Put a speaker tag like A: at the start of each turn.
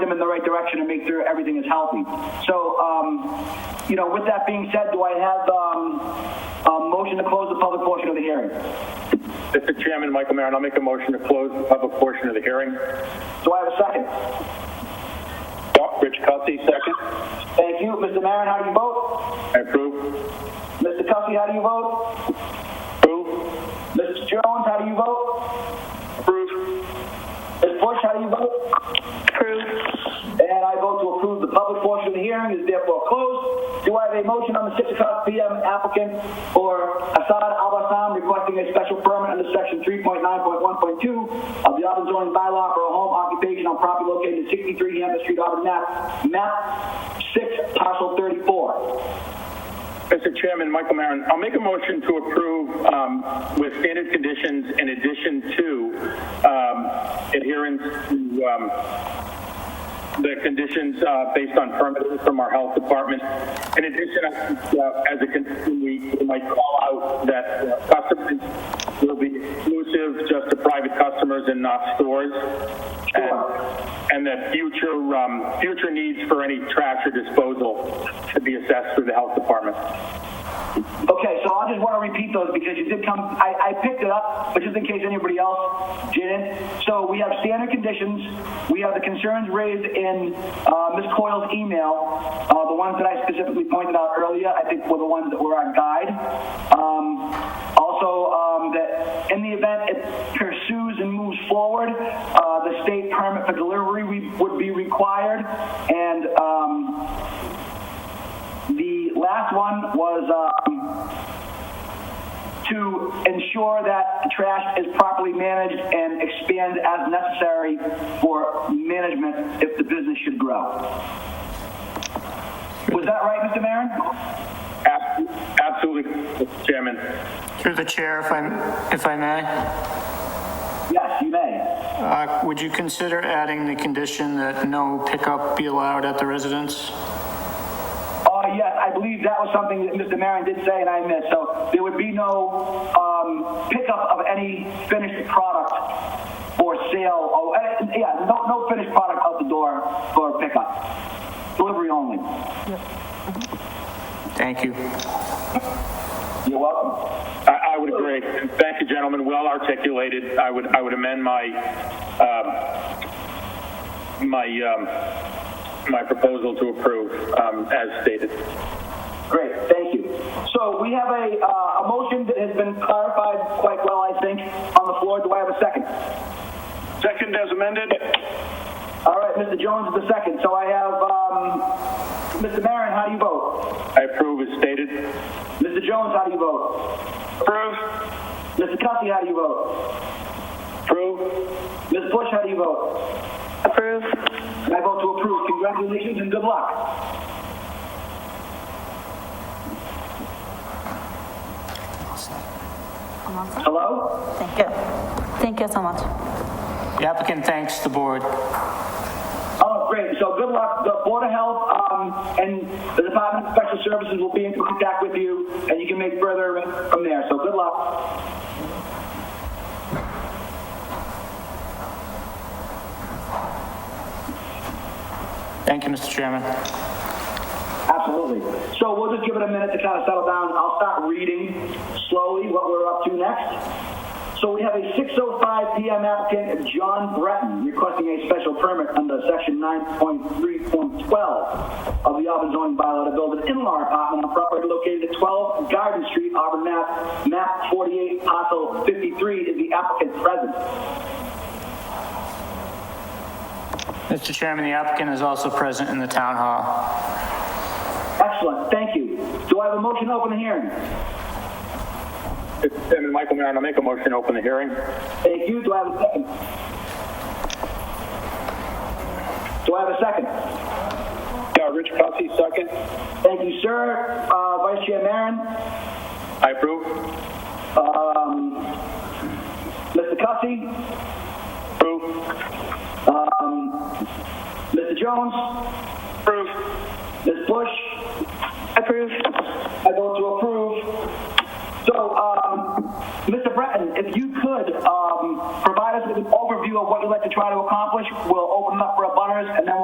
A: them in the right direction and make sure everything is healthy. So, um, you know, with that being said, do I have um, a motion to close the public portion of the hearing?
B: Mr. Chairman, Michael Marin, I'll make a motion to close the public portion of the hearing.
A: Do I have a second?
B: Doc, Rich Cussy, second.
A: Thank you. Mr. Marin, how do you vote?
B: I approve.
A: Mr. Cussy, how do you vote?
B: Approve.
A: Mr. Jones, how do you vote?
B: Approve.
A: Ms. Bush, how do you vote? Approve. And I vote to approve the public portion of the hearing is therefore closed. Do I have a motion on the 6 o'clock PM applicant for Assad Al-Bassam requesting a special permit under section 3.9.1.2 of the Auburn zoning bylaw for a home occupation on property located at 63 Hampton Street, Auburn, map, map 6, parcel 34?
B: Mr. Chairman, Michael Marin, I'll make a motion to approve um, with standard conditions in addition to um, adherence to um, the conditions uh, based on permits from our health department. In addition, I think, uh, as a condition, we we might call out that uh, customers will be exclusive just to private customers and not stores. And, and that future, um, future needs for any trash or disposal should be assessed through the health department.
A: Okay, so I just want to repeat those because you did come, I, I picked it up, but just in case anybody else didn't. So we have standard conditions. We have the concerns raised in uh, Ms. Coyle's email. Uh, the ones that I specifically pointed out earlier, I think were the ones that were our guide. Um, also, um, that in the event it pursues and moves forward, uh, the state permit for delivery we, would be required. And, um, the last one was um, to ensure that trash is properly managed and expand as necessary for management if the business should grow. Was that right, Mr. Marin?
B: Ab- Absolutely, Mr. Chairman.
C: Through the chair, if I, if I may,
A: Yes, you may.
C: uh, would you consider adding the condition that no pickup be allowed at the residence?
A: Uh, yes, I believe that was something that Mr. Marin did say and I missed. So there would be no um, pickup of any finished product for sale. Oh, eh, yeah, no, no finished product out the door for pickup. Delivery only.
C: Thank you.
A: You're welcome.
B: I, I would agree. Thank you, gentlemen. Well articulated. I would, I would amend my, um, my, um, my proposal to approve, um, as stated.
A: Great, thank you. So we have a, uh, a motion that has been clarified quite well, I think, on the floor. Do I have a second?
B: Second as amended?
A: All right, Mr. Jones is the second. So I have, um, Mr. Marin, how do you vote?
B: I approve as stated.
A: Mr. Jones, how do you vote?
B: Approve.
A: Mr. Cussy, how do you vote?
B: Approve.
A: Ms. Bush, how do you vote?
D: Approve.
A: I vote to approve. Congratulations and good luck. Hello?
D: Thank you. Thank you so much.
C: The applicant thanks the board.
A: Oh, great. So good luck. The Board of Health um, and the Department of Special Services will be in contact with you, and you can make further arrangements from there. So good luck.
C: Thank you, Mr. Chairman.
A: Absolutely. So we'll just give it a minute to kind of settle down. I'll start reading slowly what we're up to next. So we have a 6:05 PM applicant, John Breton, requesting a special permit under section 9.3.12 of the Auburn zoning bylaw to build an in-law apartment on property located at 12 Garden Street, Auburn, Mass. Map 48, parcel 53. Is the applicant present?
C: Mr. Chairman, the applicant is also present in the town hall.
A: Excellent. Thank you. Do I have a motion to open the hearing?
B: Mr. Chairman, Michael Marin, I'll make a motion to open the hearing.
A: Thank you. Do I have a second? Do I have a second?
B: Yeah, Uh, Rich Cussy, second.
A: Thank you, sir. Uh, Vice Chair Marin,
B: I approve.
A: Mr. Cussy,
B: Approve.
A: Mr. Jones,
B: Approve.
A: Ms. Bush. Approved. I vote to approve. So, um, Mr. Breton, if you could, um, provide us with an overview of what you'd like to try to accomplish, we'll open up for a butters, and then